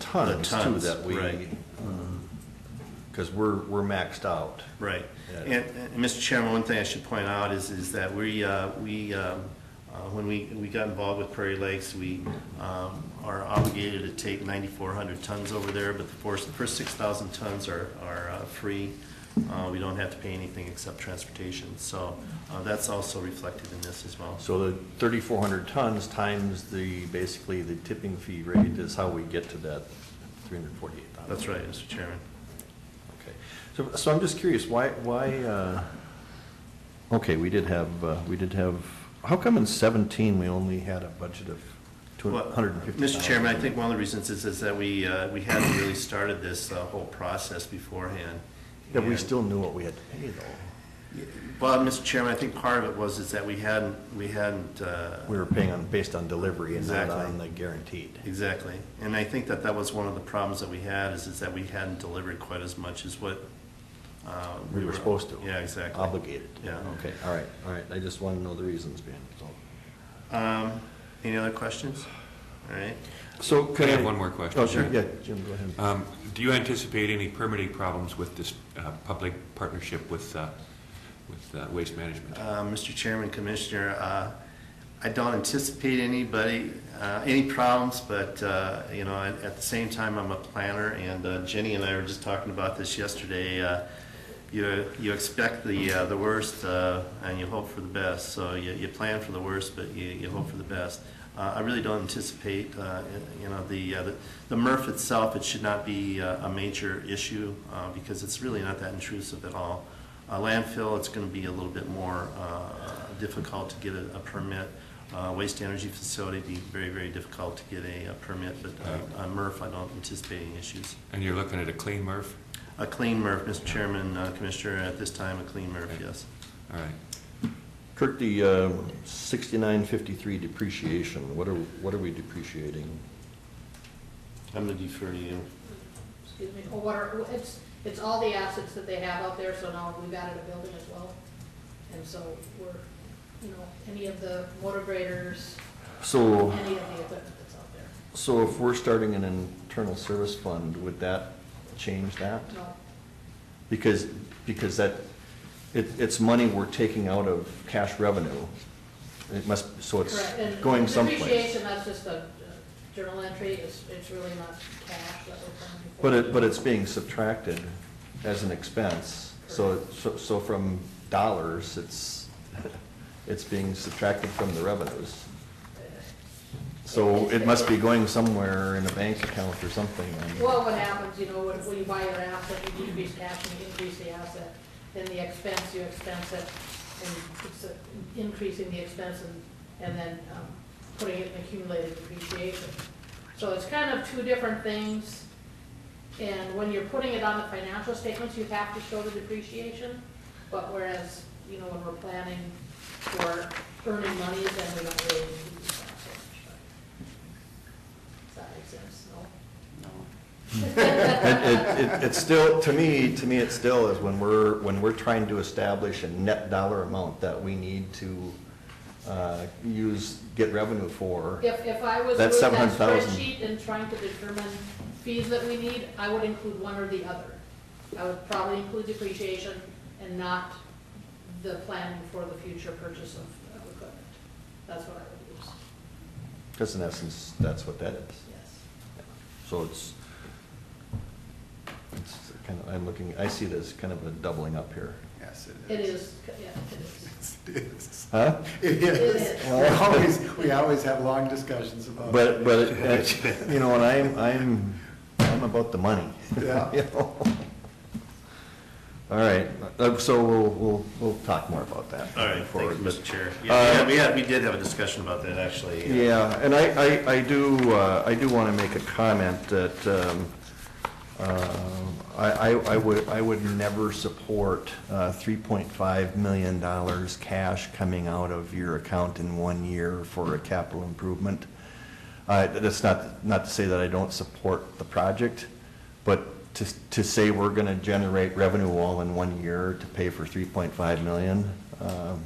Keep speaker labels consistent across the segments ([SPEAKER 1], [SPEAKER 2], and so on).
[SPEAKER 1] tons too
[SPEAKER 2] tons,
[SPEAKER 1] that we,
[SPEAKER 2] right.
[SPEAKER 1] because we're, we're maxed out.
[SPEAKER 2] Right.
[SPEAKER 1] Yeah.
[SPEAKER 2] And, and Mr. Chairman, one thing I should point out is, is that we, uh, we, um, uh, when we, we got involved with Prairie Lakes, we um, are obligated to take 9,400 tons over there, but the first, the first 6,000 tons are, are uh, free. Uh, We don't have to pay anything except transportation. So uh, that's also reflected in this as well.
[SPEAKER 1] So the thirty-four hundred tons times the, basically the tipping fee rate is how we get to that three hundred forty-eight thousand.
[SPEAKER 2] That's right, Mr. Chairman.
[SPEAKER 1] Okay, so, so I'm just curious, why, why, uh, okay, we did have, uh, we did have, how come in seventeen we only had a budget of two
[SPEAKER 2] Well,
[SPEAKER 1] hundred and fifty thousand?
[SPEAKER 2] Mr. Chairman, I think one of the reasons is, is that we, uh, we hadn't really started this uh, whole process beforehand.
[SPEAKER 1] That we
[SPEAKER 2] And-
[SPEAKER 1] still knew what we had to pay though.
[SPEAKER 2] Well, Mr. Chairman, I think part of it was is that we hadn't, we hadn't, uh,
[SPEAKER 1] We were paying on, based on delivery and not
[SPEAKER 2] Exactly.
[SPEAKER 1] on the guaranteed.
[SPEAKER 2] exactly. And I think that that was one of the problems that we had is, is that we hadn't delivered quite as much as what. uh,
[SPEAKER 1] We were supposed to.
[SPEAKER 2] Yeah, exactly.
[SPEAKER 1] Obligated.
[SPEAKER 2] Yeah.
[SPEAKER 1] Okay, all right, all right, I just wanna know the reasons behind it, so.
[SPEAKER 2] Um, Any other questions? All right.
[SPEAKER 1] So Uh,
[SPEAKER 3] I have one more question?
[SPEAKER 1] Oh, sure, yeah, Jim, go ahead.
[SPEAKER 3] Um, Do you anticipate any permitting problems with this uh, public partnership with, uh, with uh, Waste Management?
[SPEAKER 2] Uh, Mr. Chairman, Commissioner, uh, I don't anticipate anybody, uh, any problems, but, uh, you know, at at the same time, I'm a planner, and uh, Jenny and I were just talking about this yesterday. Uh, You you expect the uh, the worst, uh, and you hope for the best, so you you plan for the worst, but you you hope for the best. Uh, I really don't anticipate, uh, you know, the uh, the- the MRF itself, it should not be uh, a major issue, uh, because it's really not that intrusive at all. Uh, Landfill, it's going to be a little bit more uh, difficult to get a a permit. Uh, Waste energy facility, be very, very difficult to get a uh, permit, but uh, on MRF, I don't anticipate any issues.
[SPEAKER 3] And you're looking at a clean MRF?
[SPEAKER 2] A clean MRF, Mr. Chairman, uh, Commissioner, at this time, a clean MRF,
[SPEAKER 3] Okay.
[SPEAKER 2] yes.
[SPEAKER 3] All right.
[SPEAKER 1] Kirk, the um, sixty-nine fifty-three depreciation, what are, what are we depreciating?
[SPEAKER 2] I'm going to defer to you.
[SPEAKER 4] excuse me, or what are, it's, it's all the assets that they have out there, so now we've added a building as well. And so we're, you know, any of the motor graders,
[SPEAKER 1] So,
[SPEAKER 4] any of the equipment that's out there,
[SPEAKER 1] so if we're starting an internal service fund, would that change that?
[SPEAKER 4] no,
[SPEAKER 1] Because, because that, it, it's money we're taking out of cash revenue. It must, so it's
[SPEAKER 4] correct. And
[SPEAKER 1] going someplace.
[SPEAKER 4] Depreciation, that's just a uh, journal entry, it's, it's really not cash that we're planning for.
[SPEAKER 1] But it, but it's being subtracted as an expense. So, it- so so from dollars, it's, it's being subtracted from the revenues.
[SPEAKER 4] Uh,
[SPEAKER 1] So it must be going somewhere in a bank account or something. and-
[SPEAKER 4] Well, what happens, you know, when, when you buy your asset, you decrease cash and you increase the asset, then the expense, you expense it, and it's uh, increasing the expense and, and then, um, putting it in accumulated depreciation. So it's kind of two different things, and when you're putting it on the financial statements, you have to show the depreciation, but whereas, you know, when we're planning for earning money, then we don't really do that so much. Does that make sense? No?
[SPEAKER 1] Hmm. It, it, it- it's still, to me, to me, it still is when we're, when we're trying to establish a net dollar amount that we need to, uh, use, get revenue for.
[SPEAKER 4] If, if I was
[SPEAKER 1] That's
[SPEAKER 4] doing that
[SPEAKER 1] 700,000.
[SPEAKER 4] spreadsheet and trying to determine fees that we need, I would include one or the other. I would probably include depreciation and not the planning for the future purchase of, of equipment. That's what I would use,
[SPEAKER 1] Because in essence, that's what that is.
[SPEAKER 4] yes.
[SPEAKER 1] So it's, it's kind of, I'm looking, I see this kind of a doubling up here.
[SPEAKER 5] Yes,
[SPEAKER 4] It is, yeah, it is.
[SPEAKER 5] It is.
[SPEAKER 1] Huh?
[SPEAKER 5] It
[SPEAKER 4] is.
[SPEAKER 5] is. We always, we always have long discussions about.
[SPEAKER 1] But, but, it- you know, and I'm, I'm, I'm about the money.
[SPEAKER 5] Yeah.
[SPEAKER 1] You know? All right, uh, so we'll, we'll, we'll talk more about that.
[SPEAKER 2] All right,
[SPEAKER 1] forward,
[SPEAKER 2] thank you,
[SPEAKER 1] but-
[SPEAKER 2] Mr. Chair.
[SPEAKER 1] Uh,
[SPEAKER 2] Yeah, we had, we did have a discussion about that, actually. uh,
[SPEAKER 1] Yeah, and I, I, I do, uh, I do want to make a comment that, um, um, I, I I would, I would never support, uh, three point five million dollars cash coming out of your account in one year for a capital improvement. Uh, that's not, not to say that I don't support the project, but to, to say we're going to generate revenue all in one year to pay for three point five million, um,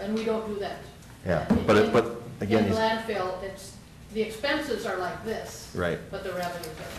[SPEAKER 4] And we don't do that.
[SPEAKER 1] Yeah, but it- but
[SPEAKER 4] In-
[SPEAKER 1] again,
[SPEAKER 4] In
[SPEAKER 1] he's-
[SPEAKER 4] landfill, it's, the expenses are like this,
[SPEAKER 1] Right.
[SPEAKER 4] but the revenues are.